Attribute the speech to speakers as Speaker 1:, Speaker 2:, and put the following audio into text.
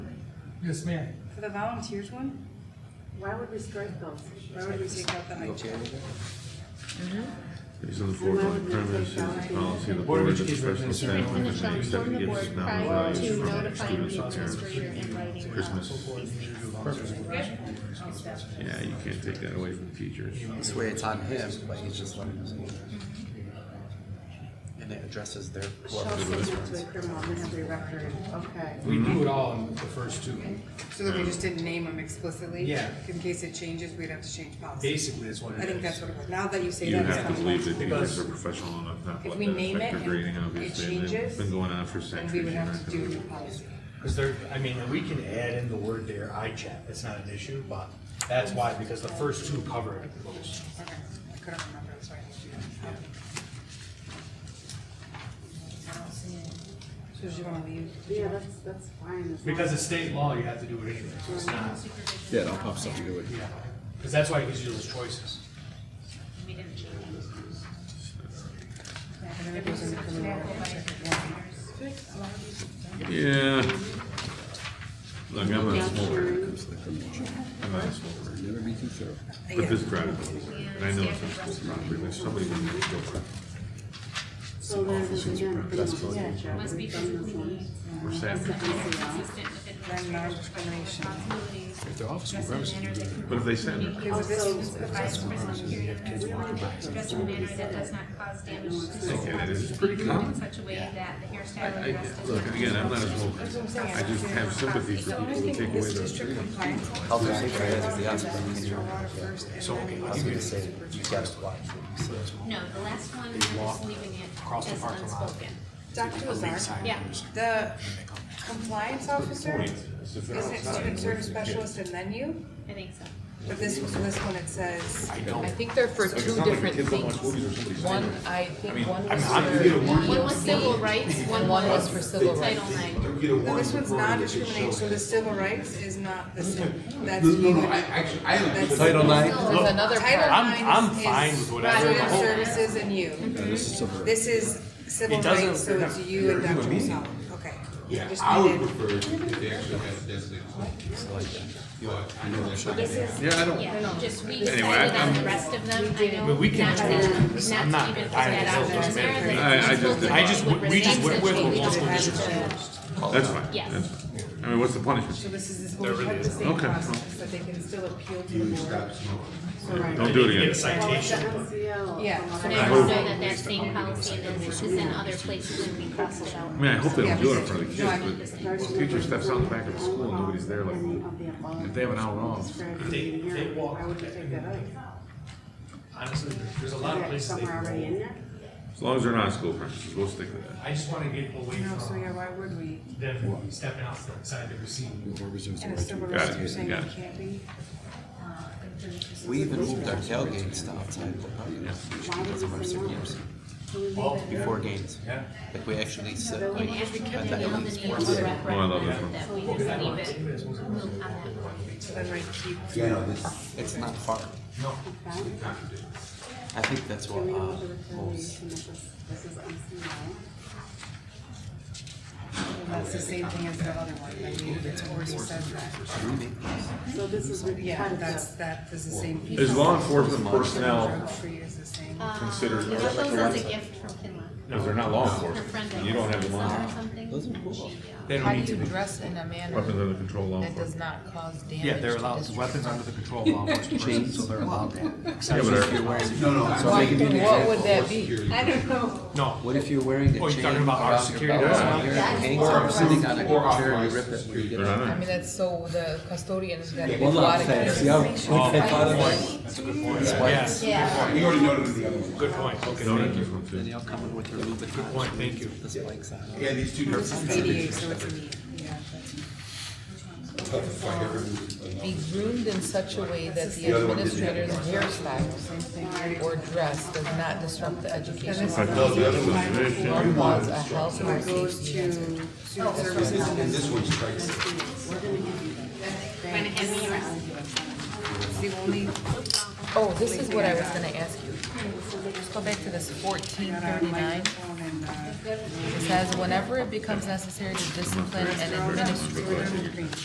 Speaker 1: Yes, ma'am.
Speaker 2: For the volunteers one,
Speaker 3: Why would we strike those?
Speaker 2: why would we take out the high chair?
Speaker 4: Based on the foregoing premise, it's the policy of the
Speaker 1: Board
Speaker 4: board
Speaker 1: of
Speaker 4: that professional
Speaker 1: Education
Speaker 4: staff members
Speaker 5: And it
Speaker 4: may accept
Speaker 5: shall inform the
Speaker 4: gifts
Speaker 5: board
Speaker 4: not
Speaker 5: prior
Speaker 4: values
Speaker 5: to
Speaker 4: from
Speaker 5: notifying
Speaker 4: students
Speaker 5: the
Speaker 4: or
Speaker 5: administrator
Speaker 4: parents.
Speaker 5: in writing of
Speaker 4: Christmas.
Speaker 5: these things.
Speaker 4: Yeah, you can't take that away from teachers.
Speaker 6: This way it's on him, but he's just letting us know. And it addresses their,
Speaker 3: Shall
Speaker 6: what
Speaker 3: subject to a criminal mandatory record, okay.
Speaker 1: We do it all in the first two.
Speaker 2: So that we just didn't name them explicitly?
Speaker 1: Yeah.
Speaker 2: In case it changes, we'd have to change policy.
Speaker 1: Basically, that's what it is.
Speaker 2: I think that's what it was, now that you say
Speaker 4: You
Speaker 2: that. it's
Speaker 4: have to
Speaker 2: not-
Speaker 4: believe that teachers
Speaker 1: Because-
Speaker 4: are professional enough not to
Speaker 2: If
Speaker 4: let
Speaker 2: we
Speaker 4: that
Speaker 2: name
Speaker 4: affect
Speaker 2: it
Speaker 4: their grading,
Speaker 2: and it
Speaker 4: obviously. and They've
Speaker 2: changes,
Speaker 4: been going on for
Speaker 2: Then we
Speaker 4: centuries.
Speaker 2: would
Speaker 4: You're
Speaker 2: have
Speaker 4: not
Speaker 2: to do a
Speaker 4: gonna-
Speaker 2: new policy.
Speaker 1: Because there, I mean, we can add in the word there, I chat, it's not an issue, but that's why, because the first two cover it most.
Speaker 2: Okay, I couldn't remember, that's why I didn't do that. So do you wanna leave?
Speaker 3: Yeah, that's, that's fine. as long
Speaker 1: Because
Speaker 3: as-
Speaker 1: it's state law, you have to do it anyway, so it's not,
Speaker 7: Yeah, don't pop something to it.
Speaker 1: yeah. Because that's why it gives you those choices.
Speaker 5: We didn't change
Speaker 2: And then it goes into criminal record.
Speaker 4: Yeah. Look, I'm not a smoker.
Speaker 3: Capturing,
Speaker 4: I'm not a smoker.
Speaker 7: Never be too thorough.
Speaker 4: But this private, and I know it's not school property, but somebody would make it go for it.
Speaker 3: so there's again, criminal
Speaker 4: possibility.
Speaker 3: yeah,
Speaker 5: Must be
Speaker 3: done this one.
Speaker 4: We're sad.
Speaker 5: consistent with
Speaker 2: Then
Speaker 5: administrative
Speaker 2: non-discrimination.
Speaker 5: responsibilities.
Speaker 7: If they're off school
Speaker 5: Dress in
Speaker 7: premises,
Speaker 5: a manner that can
Speaker 4: But if they send her,
Speaker 5: communicate with the vice president carrying out his work. Dress in a manner that does not cause damage to the
Speaker 4: Okay, that is
Speaker 5: surroundings.
Speaker 4: pretty
Speaker 5: Be
Speaker 4: common.
Speaker 5: in such a way that the
Speaker 4: I,
Speaker 5: hairstyle and dress does
Speaker 4: look,
Speaker 5: not
Speaker 4: again, I'm not a smoker. I just have sympathy for people who take away
Speaker 2: It's
Speaker 4: those.
Speaker 2: strict compliance.
Speaker 6: health and safety is the aspirin.
Speaker 2: Mr. Water first, and
Speaker 1: So,
Speaker 2: then
Speaker 1: okay,
Speaker 2: it
Speaker 1: I'll
Speaker 2: goes
Speaker 1: give you
Speaker 2: into
Speaker 1: the same.
Speaker 6: You guys watch what you say.
Speaker 5: No, the last one, I'm just leaving it
Speaker 1: across the
Speaker 5: as
Speaker 1: parking lot.
Speaker 5: unspoken.
Speaker 2: Dr. Lazar,
Speaker 5: Yeah,
Speaker 2: the compliance officer, isn't it student service specialist and then you?
Speaker 5: I think so.
Speaker 2: But this, this one, it says,
Speaker 8: I think they're for two different things. One, I think one was
Speaker 5: One
Speaker 8: for,
Speaker 5: was civil rights, one
Speaker 8: one was
Speaker 5: was
Speaker 8: for civil rights.
Speaker 5: Title IX.
Speaker 2: no, this one's non-discrimination, so the civil rights is not the same, that's.
Speaker 9: actually, I don't.
Speaker 2: That's-
Speaker 8: There's another part.
Speaker 2: Title
Speaker 9: I'm, I'm
Speaker 2: IX is-
Speaker 9: fine with whatever. the
Speaker 2: Student
Speaker 9: whole-
Speaker 2: services and you.
Speaker 7: this is civil.
Speaker 2: This is civil
Speaker 9: It doesn't-
Speaker 2: rights, so it's you and Dr. Lazar, okay.
Speaker 9: Yeah,
Speaker 2: Just
Speaker 9: I would
Speaker 2: needed-
Speaker 9: prefer if they actually had a designated. But I know that's not gonna happen.
Speaker 4: Yeah, I don't.
Speaker 5: Yeah, just we
Speaker 4: Anyway,
Speaker 5: decided
Speaker 4: I-
Speaker 5: on the
Speaker 4: I'm-
Speaker 5: rest of them, I know.
Speaker 9: But we can
Speaker 5: not to-
Speaker 9: change this.
Speaker 5: not
Speaker 9: I'm
Speaker 5: to
Speaker 9: not
Speaker 5: even put
Speaker 9: dying
Speaker 5: that
Speaker 9: to
Speaker 5: out
Speaker 9: vote this
Speaker 5: there,
Speaker 9: man.
Speaker 5: that
Speaker 4: I- I
Speaker 5: it's
Speaker 4: just-
Speaker 5: both
Speaker 4: I
Speaker 9: just-
Speaker 5: would
Speaker 9: we- we just
Speaker 5: resent
Speaker 9: went with
Speaker 5: such
Speaker 9: what
Speaker 5: a-
Speaker 9: multiple
Speaker 5: such a-
Speaker 4: That's fine.
Speaker 5: Yes.
Speaker 4: That's fine. I mean, what's the punishment?
Speaker 2: So this is this whole part of the same
Speaker 4: Okay.
Speaker 2: process, that they can still appeal to the board. So, right.
Speaker 4: Don't do it
Speaker 1: Get a
Speaker 4: again.
Speaker 3: Well, it's the
Speaker 1: citation.
Speaker 3: MCL.
Speaker 2: Yeah.
Speaker 3: from what
Speaker 5: So
Speaker 3: I-
Speaker 5: now we know that that same policy is, is in other places and
Speaker 4: Oh,
Speaker 5: we cross it out.
Speaker 4: I mean, I hope they
Speaker 2: Yeah,
Speaker 4: don't do it in
Speaker 2: but-
Speaker 4: front of the
Speaker 2: No, I mean-
Speaker 4: kids, but if a teacher steps out the back of the school and nobody's there, like, if they have an hour off,
Speaker 1: They, they walk,
Speaker 3: Why would you take that out?
Speaker 1: honestly, there's a lot of places they
Speaker 3: Somewhere
Speaker 1: can
Speaker 3: already in
Speaker 1: go.
Speaker 3: there?
Speaker 4: as long as they're not school premises, we'll stick with that.
Speaker 1: I just wanna get away
Speaker 2: No, so yeah,
Speaker 1: from
Speaker 2: why would we?
Speaker 1: them stepping outside the scene.
Speaker 7: Whoever resumes the
Speaker 2: And
Speaker 7: right
Speaker 2: it's
Speaker 7: to
Speaker 2: civil
Speaker 4: Got
Speaker 2: rights,
Speaker 4: it,
Speaker 2: you're saying
Speaker 4: got
Speaker 2: it
Speaker 4: it.
Speaker 2: can't be? Uh,
Speaker 6: We even moved our tailgates to outside the podium.
Speaker 3: Why would we say no?
Speaker 1: Well,
Speaker 6: Before games,
Speaker 1: yeah.
Speaker 6: like we actually sit like
Speaker 5: And as we
Speaker 6: at
Speaker 5: continue
Speaker 6: the
Speaker 5: on
Speaker 6: end
Speaker 5: the
Speaker 6: of
Speaker 5: New York rep,
Speaker 4: Oh, I love this one.
Speaker 5: that we just leave it on that one.
Speaker 2: So then right, keep,
Speaker 9: Yeah, no, this,
Speaker 6: It's not far.
Speaker 3: Okay.
Speaker 6: I think that's
Speaker 3: Do
Speaker 6: what,
Speaker 3: we know
Speaker 6: uh,
Speaker 3: what the
Speaker 6: holds.
Speaker 3: determination of this, this is MCL?
Speaker 2: well, that's the same thing as the other one, I mean, it's already said that.
Speaker 3: So this is.
Speaker 2: Yeah, that's, that is the same. piece.
Speaker 4: Is law enforcement
Speaker 2: Drug
Speaker 4: personnel,
Speaker 2: free is the same.
Speaker 8: Uh,
Speaker 4: Considered-
Speaker 5: Um, Those are a gift from Finland.
Speaker 4: because they're not law
Speaker 5: Her
Speaker 4: enforcement,
Speaker 5: friend that
Speaker 4: and you don't have
Speaker 5: was
Speaker 4: law
Speaker 5: on or
Speaker 4: enforcement.
Speaker 5: something.
Speaker 6: Those are cool.
Speaker 5: She, uh,
Speaker 9: they
Speaker 8: How
Speaker 9: don't need
Speaker 8: do
Speaker 9: to
Speaker 8: you
Speaker 9: be.
Speaker 8: dress in a manner
Speaker 4: Weapons under control, law
Speaker 8: that does
Speaker 4: enforcement.
Speaker 8: not cause damage?
Speaker 9: Yeah, they're
Speaker 8: to
Speaker 9: allowed,
Speaker 8: district?
Speaker 9: weapons under the control of law enforcement personnel, so they're allowed that.
Speaker 4: Yeah, but our-
Speaker 9: No, no, so
Speaker 8: Why-
Speaker 9: they can do that.
Speaker 8: What would that be?
Speaker 3: I don't know.
Speaker 9: No,
Speaker 6: What if you're wearing a
Speaker 9: Oh, you're
Speaker 6: chain
Speaker 9: talking about our
Speaker 6: around your
Speaker 9: security
Speaker 6: belt,
Speaker 4: guard?
Speaker 6: and your hangs
Speaker 9: Or-
Speaker 6: up, sitting on a
Speaker 9: or
Speaker 6: chair, and
Speaker 9: authorized
Speaker 6: you rip it when you get
Speaker 4: they're
Speaker 6: up?
Speaker 8: I
Speaker 4: not.
Speaker 8: mean, that's so the custodian is gonna be a
Speaker 6: Hold
Speaker 8: lot
Speaker 6: on,
Speaker 8: of.
Speaker 6: Fed, see how quick I thought of that?
Speaker 9: yes.
Speaker 5: Yeah.
Speaker 9: We already noted the other one. Good point, okay,
Speaker 4: No,
Speaker 9: thank
Speaker 4: this
Speaker 9: you.
Speaker 4: one
Speaker 6: Then
Speaker 4: too.
Speaker 6: you'll come in with your Louboutin.
Speaker 9: Point, thank you.
Speaker 6: The spikes on.
Speaker 9: Yeah, these two
Speaker 2: This is ADA, so it's a need, yeah.
Speaker 8: Be groomed in such a way that the administrator's hairstyle or dress does not disrupt the education.
Speaker 4: I thought that was a
Speaker 8: One
Speaker 4: mission.
Speaker 8: wants a health or safety
Speaker 2: To
Speaker 8: hazard.
Speaker 2: student services, and
Speaker 9: This one's strikes.
Speaker 5: When it had me arrested.
Speaker 2: that's the only,
Speaker 8: Oh, this is what I was gonna ask you. Just go back to this fourteen thirty-nine.
Speaker 2: one in, uh,
Speaker 8: It says, whenever it becomes necessary to discipline an administrator
Speaker 2: green.